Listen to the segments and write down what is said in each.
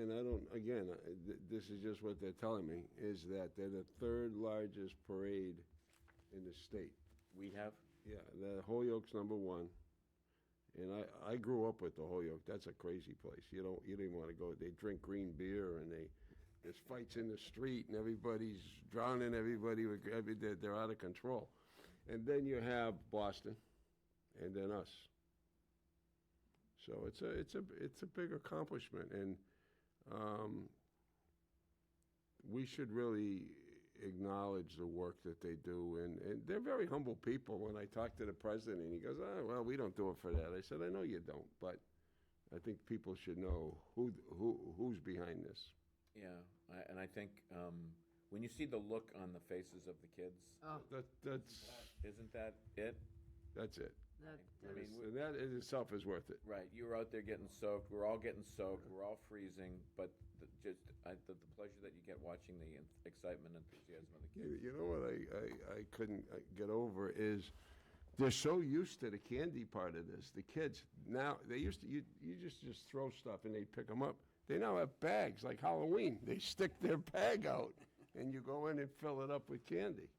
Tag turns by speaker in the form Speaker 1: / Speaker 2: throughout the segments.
Speaker 1: don't, again, uh, th- this is just what they're telling me, is that they're the third largest parade in the state.
Speaker 2: We have?
Speaker 1: Yeah, the Holyoke's number one. And I, I grew up with the Holyoke. That's a crazy place. You don't, you don't want to go. They drink green beer and they, there's fights in the street and everybody's drowning everybody. With, I mean, they're, they're out of control. And then you have Boston and then us. So it's a, it's a, it's a big accomplishment. And um, we should really acknowledge the work that they do. And, and they're very humble people. When I talked to the president, and he goes, oh, well, we don't do it for that. I said, I know you don't, but I think people should know who, who, who's behind this.
Speaker 2: Yeah, I- and I think um, when you see the look on the faces of the kids,
Speaker 3: Oh,
Speaker 1: That, that's,
Speaker 2: isn't that it?
Speaker 1: that's it.
Speaker 3: that,
Speaker 2: I
Speaker 3: that
Speaker 2: mean,
Speaker 3: was,
Speaker 2: we-
Speaker 1: And that in itself is worth it.
Speaker 2: Right, you were out there getting soaked, we're all getting soaked, we're all freezing, but the, just, I, the, the pleasure that you get watching the en- excitement and enthusiasm of the kids.
Speaker 1: You you know what I, I, I couldn't uh, get over is they're so used to the candy part of this. The kids now they used to you you just just throw stuff and they pick them up. They now have bags like Halloween. They stick their bag out and you go in and fill it up with candy.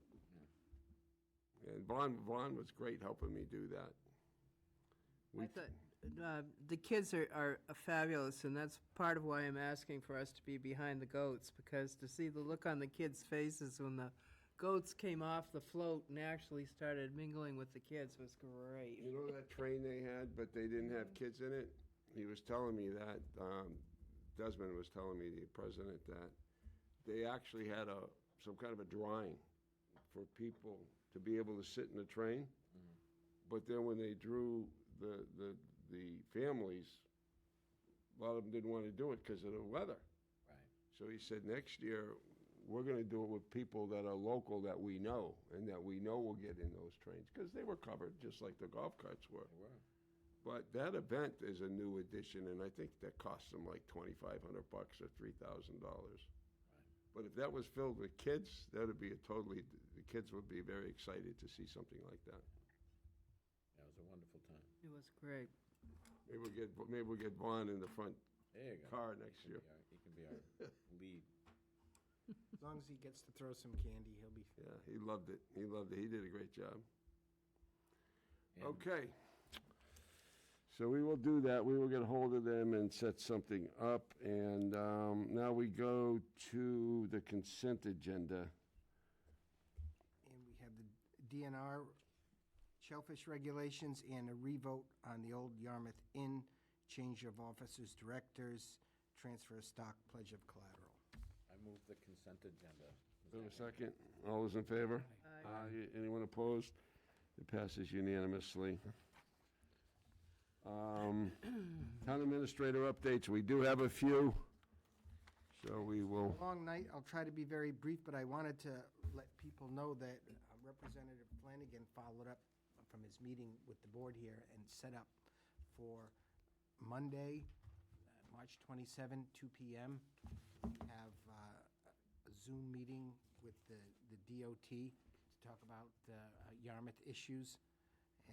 Speaker 1: And Vaughn Vaughn was great helping me do that.
Speaker 3: I thought, uh, the kids are, are fabulous, and that's part of why I'm asking for us to be behind the goats, because to see the look on the kids' faces when the goats came off the float and actually started mingling with the kids was great.
Speaker 1: You know that train they had, but they didn't have kids in it? He was telling me that, um, Desmond was telling me, the president, that they actually had a, some kind of a drawing for people to be able to sit in the train. But then when they drew the, the, the families, a lot of them didn't want to do it because of the weather.
Speaker 2: Right,
Speaker 1: So he said, next year, we're gonna do it with people that are local that we know and that we know will get in those trains, because they were covered, just like the golf carts were.
Speaker 2: they were.
Speaker 1: But that event is a new addition, and I think that costs them like twenty-five hundred bucks or three thousand dollars. But if that was filled with kids, that'd be a totally, the kids would be very excited to see something like that.
Speaker 2: That was a wonderful time.
Speaker 3: It was great.
Speaker 1: Maybe we'll get, maybe we'll get Vaughn in the front
Speaker 2: There you go.
Speaker 1: car
Speaker 2: He
Speaker 1: next
Speaker 2: can
Speaker 1: year.
Speaker 2: be our- He can be our lead.
Speaker 4: As long as he gets to throw some candy, he'll be.
Speaker 1: Yeah, he loved it. He loved it. He did a great job.
Speaker 2: And-
Speaker 1: Okay. So we will do that. We will get hold of them and set something up. And um, now we go to the consent agenda.
Speaker 4: And we have the DNR shellfish regulations and a revote on the old Yarmouth Inn, change of officers, directors, transfer of stock, pledge of collateral.
Speaker 2: I move the consent agenda.
Speaker 1: Do I have a second? All those in favor?
Speaker 3: Aye.
Speaker 1: Aye. Anyone opposed? It passes unanimously. Um, Town administrator updates, we do have a few, so we will,
Speaker 4: Long night, I'll try to be very brief, but I wanted to let people know that uh, Representative Flanagan followed up from his meeting with the board here and set up for Monday, uh, March 27, 2 PM, have uh, a Zoom meeting with the the DOT to talk about uh, Yarmouth issues.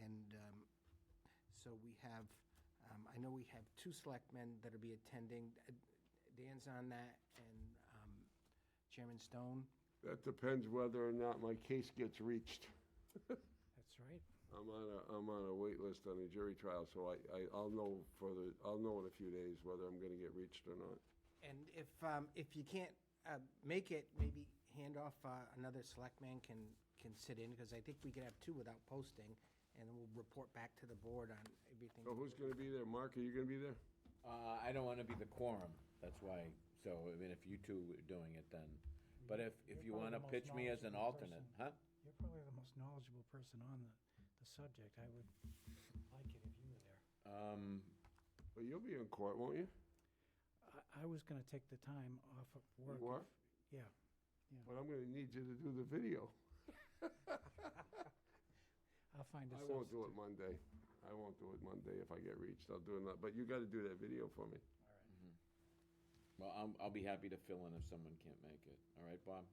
Speaker 4: And um, so we have, um, I know we have two selectmen that'll be attending. Uh, Dan's on that and um, Chairman Stone.
Speaker 1: that depends whether or not my case gets reached.
Speaker 4: That's right.
Speaker 1: I'm on a, I'm on a wait list on a jury trial, so I, I, I'll know further, I'll know in a few days whether I'm gonna get reached or not.
Speaker 4: And if, um, if you can't uh, make it, maybe hand off uh, another selectman can, can sit in because I think we could have two without posting and then we'll report back to the board on everything.
Speaker 1: So who's gonna be there? Mark, are you gonna be there?
Speaker 2: Uh, I don't wanna be the quorum, that's why, so, I mean, if you two are doing it then, but if, if
Speaker 5: You're
Speaker 2: you
Speaker 5: probably
Speaker 2: wanna
Speaker 5: the most
Speaker 2: pitch me as an
Speaker 5: knowledgeable
Speaker 2: alternate,
Speaker 5: person.
Speaker 2: huh?
Speaker 5: You're probably the most knowledgeable person on the, the subject. I would like it if you were there.
Speaker 2: Um,
Speaker 1: Well, you'll be in court, won't you?
Speaker 5: I, I was gonna take the time off of work.
Speaker 1: You are?
Speaker 5: if- Yeah.
Speaker 1: But I'm gonna need you to do the video.
Speaker 5: I'll find a
Speaker 1: I won't do it
Speaker 5: substitute.
Speaker 1: Monday. I won't do it Monday if I get reached. I'll do it, not- but you gotta do that video for me.
Speaker 2: well, I'm, I'll be happy to fill in if someone can't make it, all right, Bob?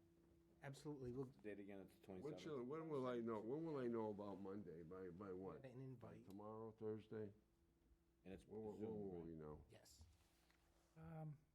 Speaker 4: Absolutely, we'll
Speaker 2: Date again, it's the
Speaker 1: When
Speaker 2: twenty-seventh.
Speaker 1: shall, when will I know, when will I know about Monday? By, by what?
Speaker 4: get an
Speaker 1: By
Speaker 4: invite,
Speaker 1: tomorrow, Thursday?
Speaker 2: And it's
Speaker 1: When, will-
Speaker 2: Zoom,
Speaker 1: when will
Speaker 2: right?
Speaker 1: we know?
Speaker 4: yes.
Speaker 5: Um,